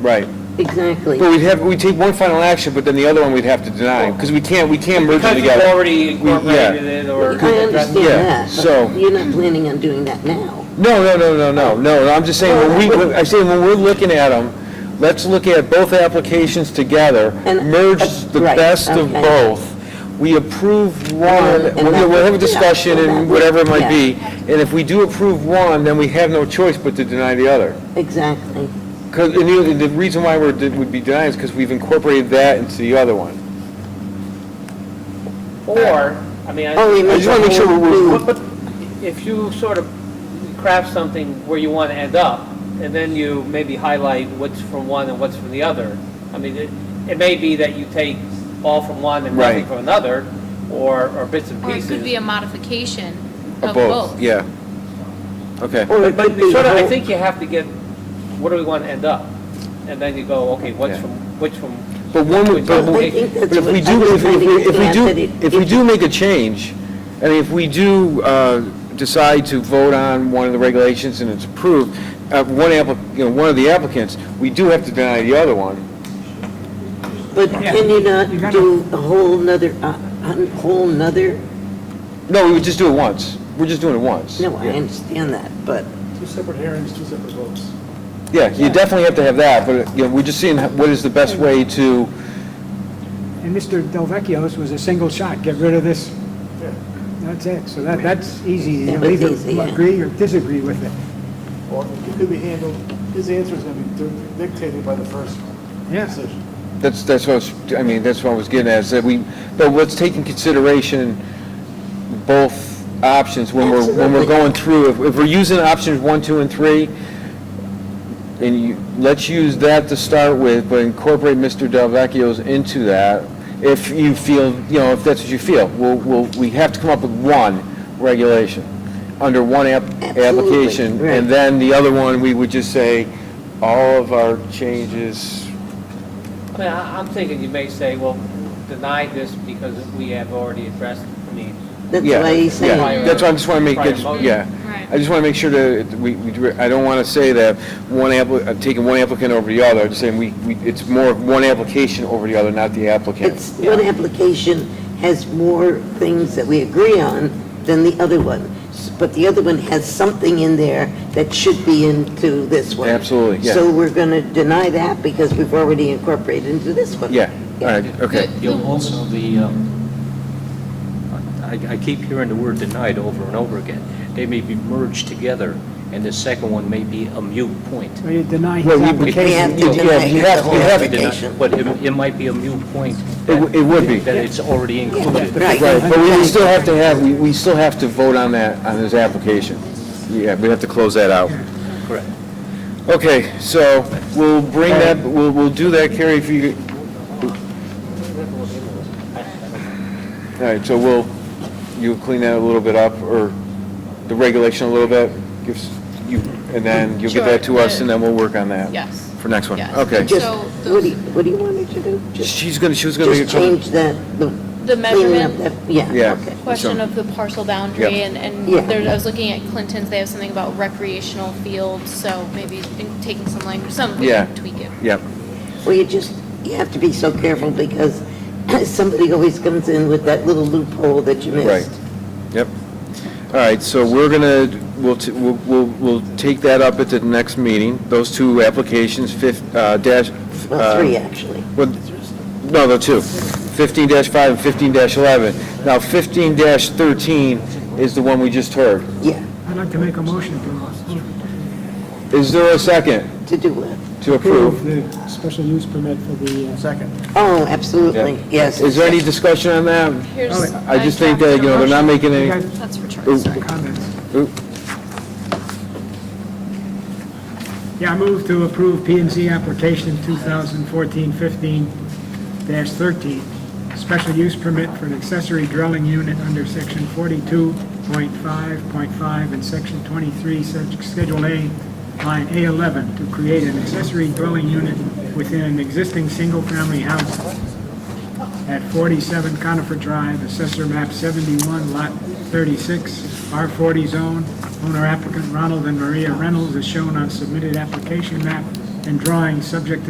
Right. Exactly. But we'd have, we'd take one final action, but then the other one we'd have to deny, because we can't, we can't merge them Because you've together. already We- yeah. incorporated it or. I understand Yeah, that, so- but you're not planning on doing that now. No, no, no, no, no, no, I'm just saying, when we, I'm saying, when we're looking at them, let's look at both applications together, And- uh, merge the right, best of okay. both. We approve one, and we'll that- we'll have a yeah, discussion and that- and whatever it might yeah. be, and if we do approve one, then we have no choice but to deny the other. Exactly. Because, and the, the reason why we're, would be denying is because we've incorporated that into the other one. Or, I mean, I. Oh, you mean I just wanna make sure we're- But- but If you sort of craft something where you want to end up, and then you maybe highlight what's from one and what's from the other, I mean, it, it may be that you take all from one and nothing Right. from another, or, or bits and Or it pieces. could be a modification Of of both. Yeah. Okay. Or it But could be sort of, I whole- think you have to get, what do we want to end up? And then you go, okay, what's Yeah. from, which from, But one, would- but, I think that's but if what- we I do, was if we, trying to if we get at do, that if we do make a change, and if we do, uh, decide to vote on one of the regulations and it's approved, uh, one applic, you know, one of the applicants, we do have to deny the other one. But can you not do a whole nother, a a whole nother? No, we would just do it once. We're just doing it once. No, I Yeah. understand that, but Two separate hearings, two separate votes. Yeah, you definitely have to have that, but, you know, we're just seeing how- what is the Hmm. best way to, And Mr. Delvecchio's was a single shot, get rid of this, Yeah. that's it. So that, that's easy, That you'll was either easy, yeah. agree or disagree with it. Or it could be handled, his answer is going to be dictated by the first Yeah. decision. that's, that's what I was, I mean, that's what I was getting at, is that we, but let's take in consideration both options when we're, when we're Absolutely. going through. If, if we're using options one, two, and three, and you, let's use that to start with, but incorporate Mr. Delvecchio's into that. If you feel, you know, if that's what you feel, we'll, we'll, we have to come up with one regulation, under one app, Absolutely, application. right. And then the other one, we would just say, all of our changes I mean, I- I'm thinking you may say, well, deny this because we have already addressed, I mean, that's Yeah, why he's yeah. saying, That's why I just want to make, Prior that's- motion. yeah. Right. I just want to make sure that we, we do- I don't want to say that one applicant, I'm taking one applicant over the other. I'm just saying we, we it's more of one application over the other, not the applicant. it's, one application has more things that we agree on than the other one. S- But the other one has something in there that should be into this one. Absolutely, yeah. So we're going to deny that because we've already incorporated into this one. Yeah, all right, okay. You'll also, the, um, I I keep hearing the word denied over and over again. They may be merged together, and the second one may be a mute point. So you deny his Well, we- application. We have to Oh, Yeah, deny you have- the whole you have to Deny- application. But it it might be a mute point. It w- it would be. That it's already included. Right. Right, but we still have to have, we, we still have to vote on that, on this application. Yeah, we have to close that out. Correct. Okay, so we'll bring that, we'll, we'll do that, Carrie, if you. All right, so we'll, you'll clean that a little bit up, or the regulation a little bit, gives you, and then you'll get that to us, and then we'll work on that. Yes. For next one, Yes. okay. Just, So what do you, what do you want me to do? Just, She's gonna, she was gonna. make just a couple- change that, the. The cleaning up measurement? that- Yeah, Yeah. okay. Question So- of the parcel boundary, Yeah. and, Yeah. and there, I was looking at Clinton's, they have something about recreational fields, so maybe in- taking some language, some, we Yeah. can tweak it. Yep, Well, you just, you have to be so careful because somebody always comes in with that little loophole that you Right. missed. yep. All right, so we're gonna, we'll, t- we'll, we'll, we'll take that up at the next meeting, those two applications, fif, uh, dash. Well, three, Um, actually. Well, no, the two, 15-5 and 15-11. Now, 15-13 is the one we just heard. Yeah, I'd like to make a motion to Is there a second to do it. to approve approve? the special use permit for the. uh, Second. Oh, absolutely, yes. Is there any discussion on that? Here's. I just think that, you know, they're not making You any, guys- That's for Ooh. Charlie, sorry. Comments. Oop. Yeah, I move to approve P and Z application 2014-15-13, special use permit for an accessory dwelling unit under section 42.5.5 and section 23, sec- Schedule A, line A11, to create an accessory dwelling unit within an existing single-family house at 47 Conifer Drive, Assessor Map 71, Lot 36, R40 Zone. Owner applicant Ronald and Maria Reynolds is shown on submitted application map and drawing, subject to